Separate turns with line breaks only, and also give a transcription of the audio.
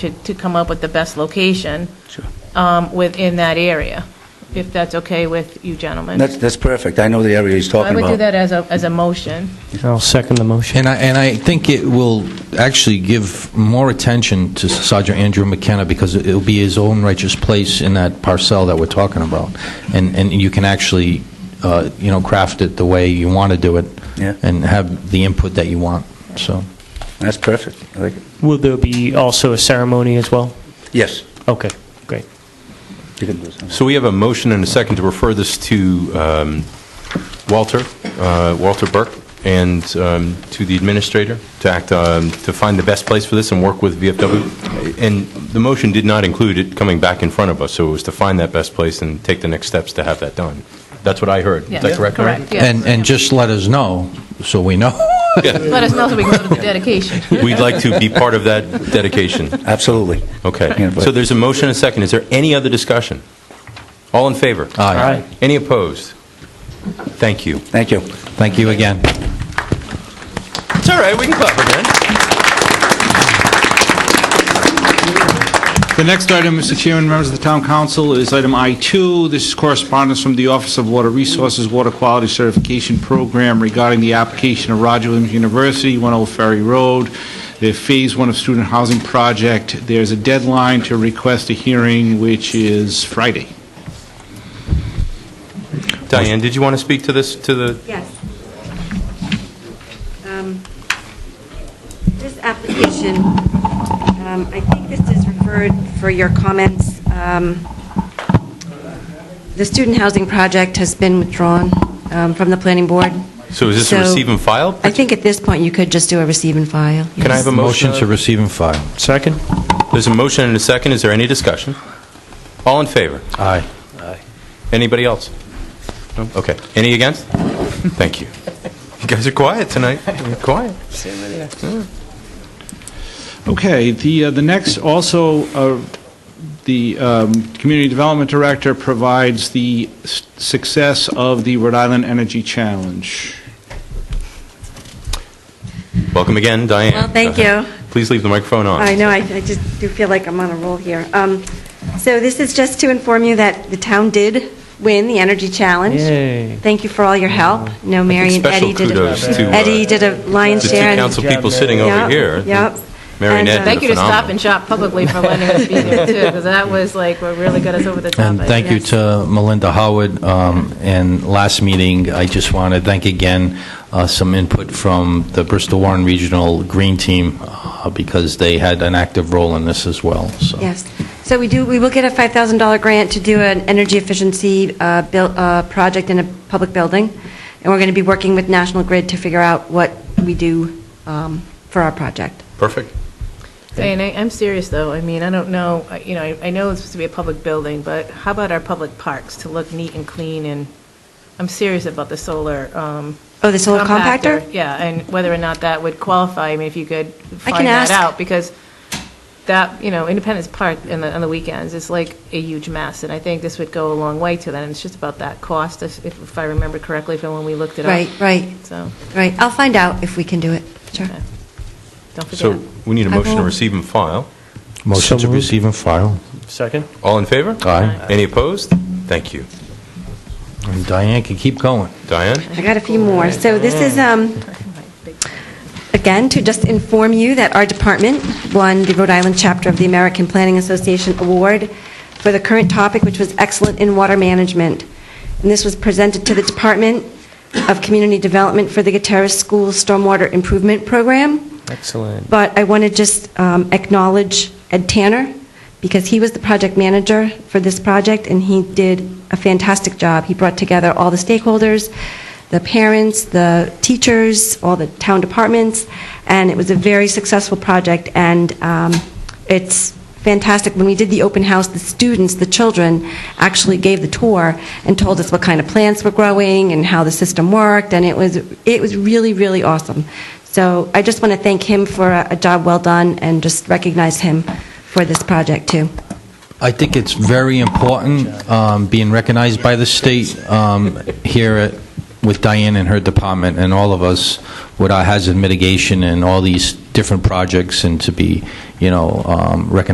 to, to come up with the best location um, within that area, if that's okay with you gentlemen.
That's, that's perfect. I know the area he's
I
talking
would do
about.
that as a, as a motion.
I'll second the motion.
And I, and I think it will actually give more attention to Sergeant Andrew McKenna because it'll be his own righteous place in that parcel that we're talking about. And, and you can actually, uh, you know, craft it the way you want to do it
Yeah.
and have the input that you want, so.
That's perfect. I like it.
Will there be also a ceremony as well?
Yes,
Okay, great.
you can do something.
So we have a motion and a second to refer this to um, Walter, uh, Walter Burke, and um, to the administrator to act, um, to find the best place for this and work with VFW. And the motion did not include it coming back in front of us, so it was to find that best place and take the next steps to have that done. That's what I heard. Is that
Yes,
correct? Noreen?
Correct, yes.
And, and just let us know, so we know.
Let us know so we can go to the dedication.
We'd like to be part of that dedication.
Absolutely. Yeah,
Okay.
but-
So there's a motion and a second. Is there any other discussion? All in favor?
Aye.
Aye.
Any opposed? Thank you.
Thank you.
Thank you again.
It's all right, we can clap again.
The next item, Mr. Chairman, members of the Town Council, is item I-2. This is correspondence from the Office of Water Resources Water Quality Certification Program regarding the application of Roger Williams University, 1 Old Ferry Road, their Phase 1 of Student Housing Project. There's a deadline to request a hearing, which is Friday.
Diane, did you want to speak to this, to the,
Yes. Um, This application, um, I think this is referred for your comments. Um, The student housing project has been withdrawn um, from the planning board.
so is this a
So-
receive and file?
I think at this point, you could just do a receive and file.
Can I have a motion?
Motion to receive and file.
Second?
There's a motion and a second, is there any discussion? All in favor?
Aye.
Anybody else? No? Okay. Any against? Thank you. You guys are quiet tonight, You're quiet.
Okay, the, uh, the next, also, uh, the um, Community Development Director provides the s- success of the Rhode Island Energy Challenge.
Welcome again, Diane.
Well, thank
Go ahead.
you.
Please leave the microphone on.
I know, I I just do feel like I'm on a roll here. Um, So this is just to inform you that the town did win the energy challenge.
Yay.
Thank you for all your help. No, Mary and
special
Eddie did. a-
kudos to, uh,
Eddie did a lion's
The two
share. and-
council people sitting over
Yep,
here.
Yep.
Mary and
And,
Ed
uh,
did a
Thank you to Stop
phenomenal-
and Shop publicly for letting us be here, too, because that was like, what really got us over the top.
And
I
thank you
guess.
to Melinda Howard. um, And last meeting, I just want to thank again uh, some input from the Bristol Warren Regional Green Team uh, because they had an active role in this as well, so.
Yes. So we do, we will get a $5,000 grant to do an energy efficiency uh, buil- uh, project in a public building, and we're going to be working with National Grid to figure out what we do um, for our project.
Perfect.
And I, I'm serious, though, I mean, I don't know, I- you know, I I know it's supposed to be a public building, but how about our public parks to look neat and clean, and I'm serious about the solar, um...
Oh, the solar compactor?
Yeah, and whether or not that would qualify, I mean, if you could
I can
find that
ask.
out, because that, you know, Independence Park in the, on the weekends is like a huge mess, and I think this would go a long way to that, and it's just about that cost, if, if I remember correctly from when we looked it up.
Right, right,
So,
right. I'll find out if we can do it. Sure.
Okay. don't forget.
So we need a
I
motion to
will-
receive and file.
Motion to
moved.
receive and file.
Second?
All in favor?
Aye.
Any opposed? Thank you.
And Diane can keep going.
Diane?
I got a few more. So this is, um, again, to just inform you that our department won the Rhode Island chapter of the American Planning Association Award for the current topic, which was Excellent in Water Management. And this was presented to the Department of Community Development for the Gutierrez School Stormwater Improvement Program.
Excellent.
But I want to just um, acknowledge Ed Tanner, because he was the project manager for this project, and he did a fantastic job. He brought together all the stakeholders, the parents, the teachers, all the town departments, and it was a very successful project, and um, it's fantastic. When we did the open house, the students, the children, actually gave the tour and told us what kind of plants were growing and how the system worked, and it was, it was really, really awesome. So I just want to thank him for a a job well done and just recognize him for this project, too.
I think it's very important, um, being recognized by the state um, here at- with Diane and her department and all of us with our hazard mitigation and all these different projects and to be, you know, um, recognized